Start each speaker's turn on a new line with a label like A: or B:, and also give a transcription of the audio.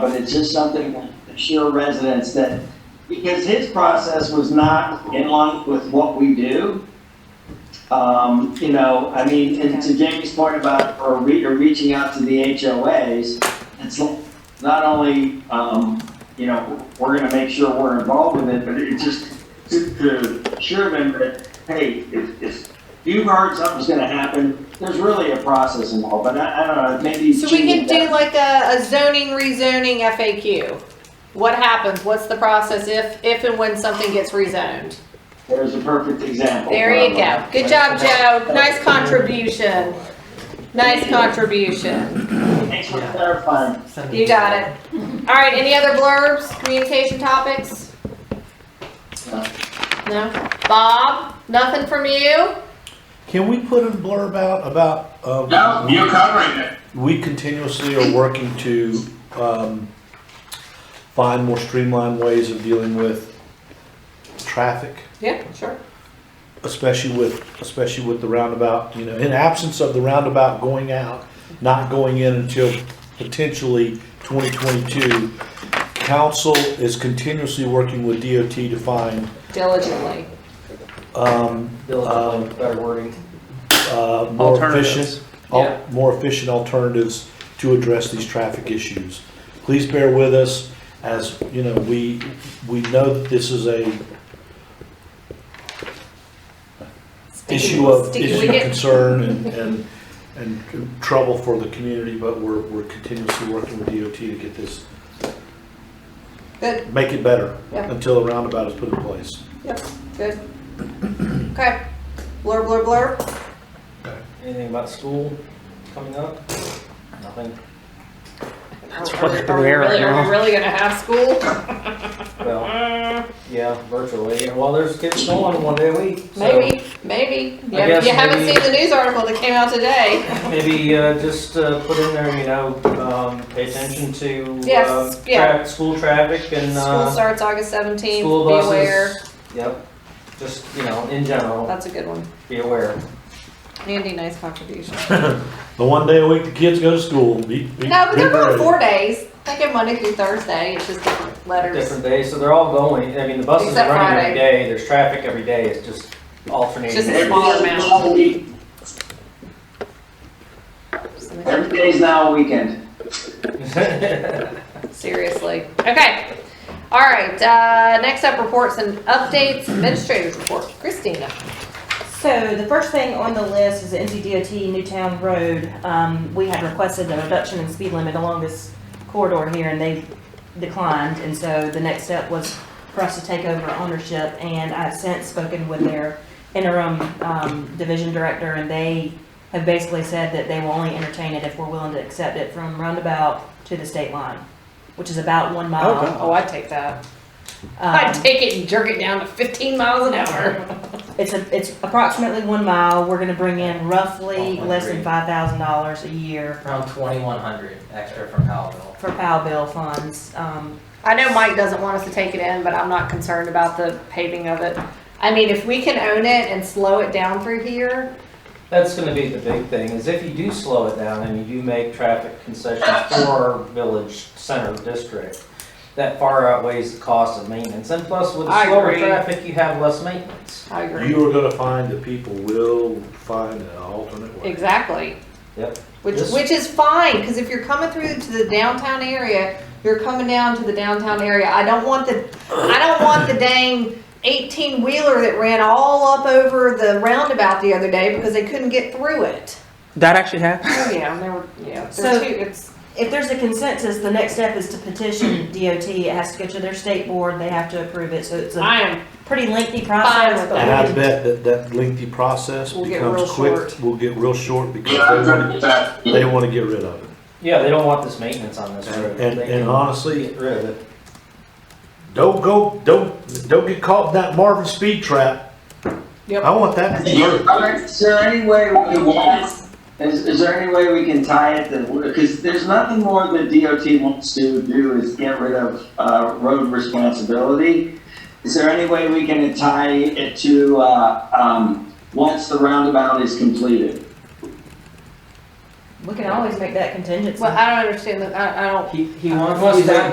A: But it's just something to show residents that, because his process was not in line with what we do. Um, you know, I mean, and to Jamie's point about, or re, or reaching out to the HOAs, it's not only, um, you know, we're gonna make sure we're involved with it, but it just, to, to assure them that, hey, if, if you've heard something's gonna happen, there's really a process involved, but I, I don't know, maybe.
B: So we
A: Jamie-
B: can do like a, a zoning rezoning FAQ. What happens? What's the process if, if and when something gets rezoned?
A: There's a perfect example.
B: There you go. Good job, Joe. Nice contribution. Nice contribution.
A: Thanks for clarifying.
B: You got it. All right, any other blurbs, communication topics?
A: No.
B: No? Bob, nothing from you?
C: Can we put a blurb out about,
D: No,
C: um,
D: you're covering it.
C: we continuously are working to, um, find more streamlined ways of dealing with traffic,
B: Yeah, sure.
C: especially with, especially with the roundabout, you know, in absence of the roundabout going out, not going in until potentially twenty twenty-two, council is continuously working with DOT to find,
B: Diligently.
C: um, um,
A: Better wording.
C: uh, more
E: Alternatives.
C: efficient, al- more efficient alternatives to address these traffic issues. Please bear with us as, you know, we, we know that this is a issue of,
B: Sticky
C: issue of
B: wicket.
C: concern and, and, and trouble for the community, but we're, we're continuously working with DOT to get this,
B: Good,
C: make it better
B: Yeah.
C: until a roundabout is put in place.
B: yep, good. Okay. Blurb, blurb, blurb.
E: Anything about school coming up? Nothing.
B: That's
F: what they're doing
B: Are
F: right now.
B: we really gonna have school?
E: Well, yeah, virtually. Well, there's kids going one day a week. so
B: Maybe, maybe. You
E: I
B: haven't- you
E: guess
B: haven't
E: maybe-
B: seen the news article that came out today.
E: Maybe uh, just uh, put in there, you know, um, pay attention to uh,
B: Yes, yeah.
E: tra- school traffic and
B: School
E: uh,
B: starts August seventeenth,
E: school
B: be
E: buses.
B: aware.
E: Yep. Just you know, in general,
B: That's a good one.
E: be aware.
B: Andy, nice contribution.
C: The one day a week the kids go to school, be, be.
B: No, but
C: be
B: they're going
C: ready.
B: four days. They get Monday through Thursday. It's just different letters.
E: Different days, so they're all going. I mean, the buses
B: Except
E: are running
B: Friday.
E: every day. There's traffic every day. It's just alternating.
B: Just-
A: Every day
B: Smaller
A: is
B: amount.
A: now a week- every day's now a weekend.
B: Seriously. Okay. All right, uh, next up, reports and updates, administrator's report. Christina.
G: So the first thing on the list is the NCDOT Newtown Road. Um, we had requested a reduction in speed limit along this corridor here and they declined. And so the next step was for us to take over ownership and I've since spoken with their interim, um, division director and they have basically said that they will only entertain it if we're willing to accept it from roundabout to the state line, which is about one mile.
B: Oh, I'd take that.
G: Um,
B: I'd take it and jerk it down to fifteen miles an hour.
G: It's a, it's approximately one mile. We're gonna bring in roughly
H: Oh, I
G: less than
H: agree.
G: five thousand dollars a year
H: Around twenty-one hundred extra from Powellville.
G: for POW bill funds. Um,
B: I know Mike doesn't want us to take it in, but I'm not concerned about the paving of it. I mean, if we can own it and slow it down through here,
E: That's gonna be the big thing, is if you do slow it down and you do make traffic concessions for our village center district, that far outweighs the cost of maintenance, and plus with
B: I
E: slower
B: agree.
E: traffic, you have less maintenance.
B: I agree.
C: You are gonna find that people will find an alternate way.
B: Exactly.
E: Yep.
B: Which,
E: This-
B: which is fine, because if you're coming through to the downtown area, you're coming down to the downtown area. I don't want the, I don't want the dang eighteen wheeler that ran all up over the roundabout the other day because they couldn't get through it.
F: That actually happened.
B: Oh, yeah, and there were, yeah, there
G: So-
B: were two, it's,
G: if there's a consensus, the next step is to petition DOT. It has to go to their state board. They have to approve it. So it's a
B: I am,
G: pretty lengthy
B: Fine
G: process.
B: with
G: but
C: And
G: we
C: I
G: can-
C: bet that that lengthy process
B: Will get
C: becomes
B: real
C: quick,
B: short.
C: will get real short because
D: Yeah, I'm
C: they
D: good
C: want,
D: with that.
C: they want to get rid of it.
E: Yeah, they don't want this maintenance on this road.
C: And,
E: They
C: and
E: can
C: honestly,
E: Get rid of it.
C: don't go, don't, don't get caught in that Marvin speed trap.
B: Yep.
C: I want that to be
D: You're
C: heard.
D: covered.
A: Is there any way we can, is, is there any way we can tie it to, because there's nothing more that DOT wants to do is get rid of, uh, road responsibility. Is there any way we can tie it to, uh, um, once the roundabout is completed?
I: We can always make that contingency.
G: Well, I don't understand that, I, I don't.
F: He, he
G: Uh,
F: wants.
B: what's
H: Uh,
F: he's like,
B: that?